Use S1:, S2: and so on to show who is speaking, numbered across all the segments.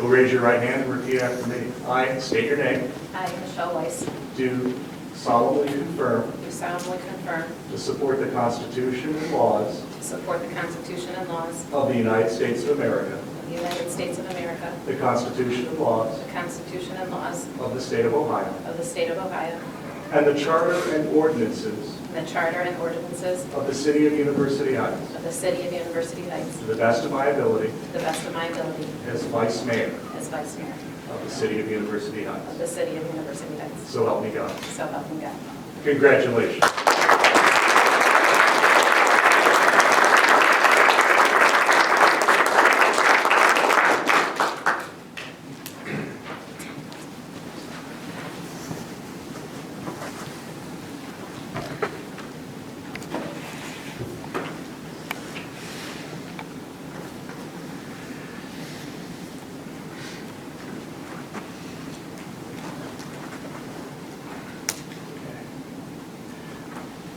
S1: Raise your right hand and repeat after me. I state your name.
S2: I, Michelle Weiss,
S1: Do solemnly confirm
S2: do solemnly confirm
S1: to support the Constitution and laws
S2: to support the Constitution and laws
S1: of the United States of America,
S2: of the United States of America,
S1: the Constitution and laws
S2: the Constitution and laws
S1: of the State of Ohio,
S2: of the State of Ohio,
S1: and the Charter and ordinances
S2: and the Charter and ordinances
S1: of the City of University Heights,
S2: of the City of University Heights,
S1: to the best of my ability
S2: to the best of my ability
S1: as Vice Mayor
S2: as Vice Mayor
S1: of the City of University
S2: of
S1: Heights.
S2: the City of University Heights.
S1: So help me God.
S2: So help me God.
S1: Congratulations.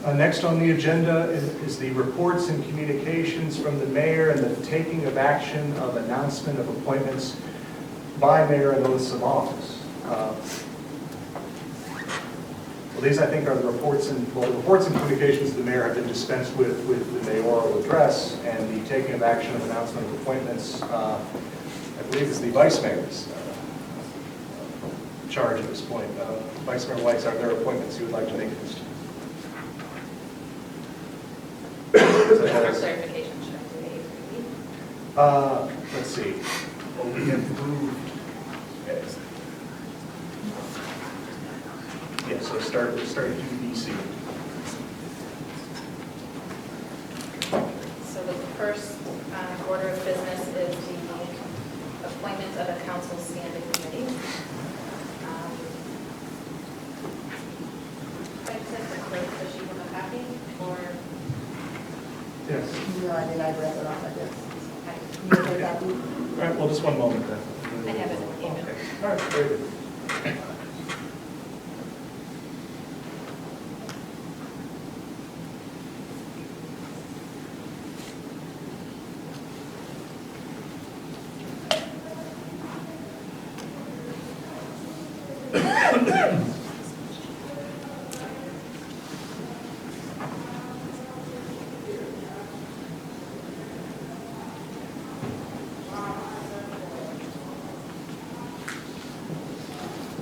S1: Uh, Next on the agenda is is the reports and communications from the mayor and the taking of action of announcement of appointments by mayor and oaths of office. Uh, Well, these, I think, are the reports and, well, the reports and communications of the mayor have been dispensed with, with the mayoral address, and the taking of action of announcement of appointments, uh, I believe is the vice mayor's uh, charge at this point. Uh, Vice Mayor White, are there appointments you would like to make at this time?
S2: For clarification, should I do the eight repeat?
S1: Uh, let's see. Well, we have moved. Yeah, so start, start at UBC.
S2: So the first um, order of business is the appointment of a council standing committee. Um, if I said the clerk, does she want a copy? Or,
S1: Yes.
S3: No, I did, I read it off, I guess.
S2: I
S3: You heard that?
S1: All right, well, just one moment then.
S2: I have it in the email.
S1: Okay. All right, very good.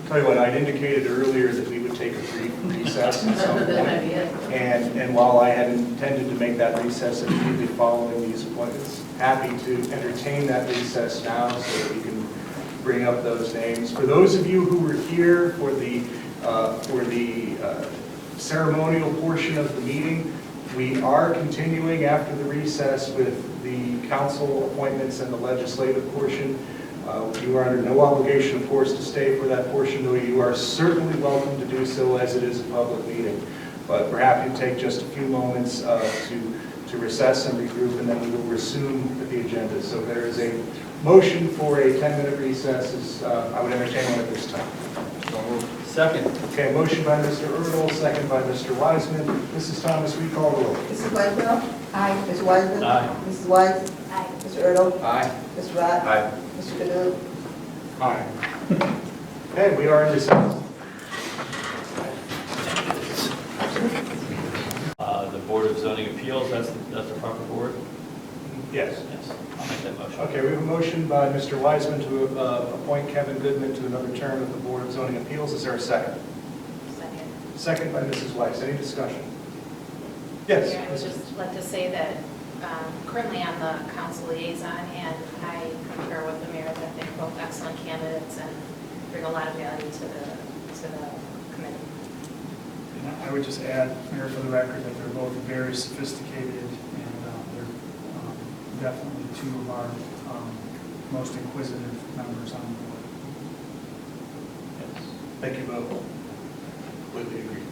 S1: Tell you what, I'd indicated earlier that we would take a brief recess at some point. And, and while I had intended to make that recess immediately following these appointments, happy to entertain that recess now so that we can bring up those names. For those of you who were here for the, uh, for the uh, ceremonial portion of the meeting, we are continuing after the recess with the council appointments and the legislative portion. Uh, You are under no obligation, of course, to stay for that portion, though you are certainly welcome to do so as it is a public meeting. But we're happy to take just a few moments uh, to to recess and regroup, and then we will resume with the agenda. So there is a motion for a 10-minute recess, is, uh, I would entertain one at this time.
S4: Second.
S1: Okay, motion by Mr. Erdl, second by Mr. Wiseman. Mrs. Thomas, we call the roll.
S3: Mrs. Whitesell? Aye. Mr. Wiseman?
S4: Aye.
S3: Mrs. White?
S2: Aye.
S3: Mr. Erdl?
S4: Aye.
S3: Mr. Rock?
S4: Aye.
S3: Mr. Galoo?
S1: Aye. Okay, we are in recess.
S4: Uh, The Board of Zoning Appeals, that's, that's the proper board?
S1: Yes.
S4: Yes, I'll make that motion.
S1: Okay, we have a motion by Mr. Wiseman to uh, appoint Kevin Goodman to another term of the Board of Zoning Appeals. Is there a second?
S2: Second.
S1: Second by Mrs. Weiss. Any discussion?
S2: Mayor, I would
S1: Yes.
S2: just like to say that um, currently I'm the council liaison, and I concur with the mayor that they're both excellent candidates and bring a lot of value to the, to the committee.
S5: And I- I would just add, Mayor, for the record, that they're both very sophisticated, and uh, they're um, definitely two of our um, most inquisitive members on the board.
S1: Thank you both. Completely agree.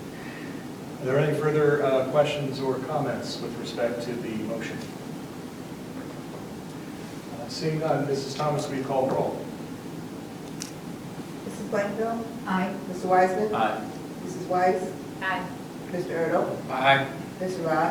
S1: Are there any further uh, questions or comments with respect to the motion? Uh, Seeing none, Mrs. Thomas, will you call the roll?
S3: Mrs. Whitesell? Aye. Mr. Wiseman?
S4: Aye.
S3: Mrs. Weiss?
S2: Aye.
S3: Mr. Erdl?
S4: Aye.
S3: Mr. Rock?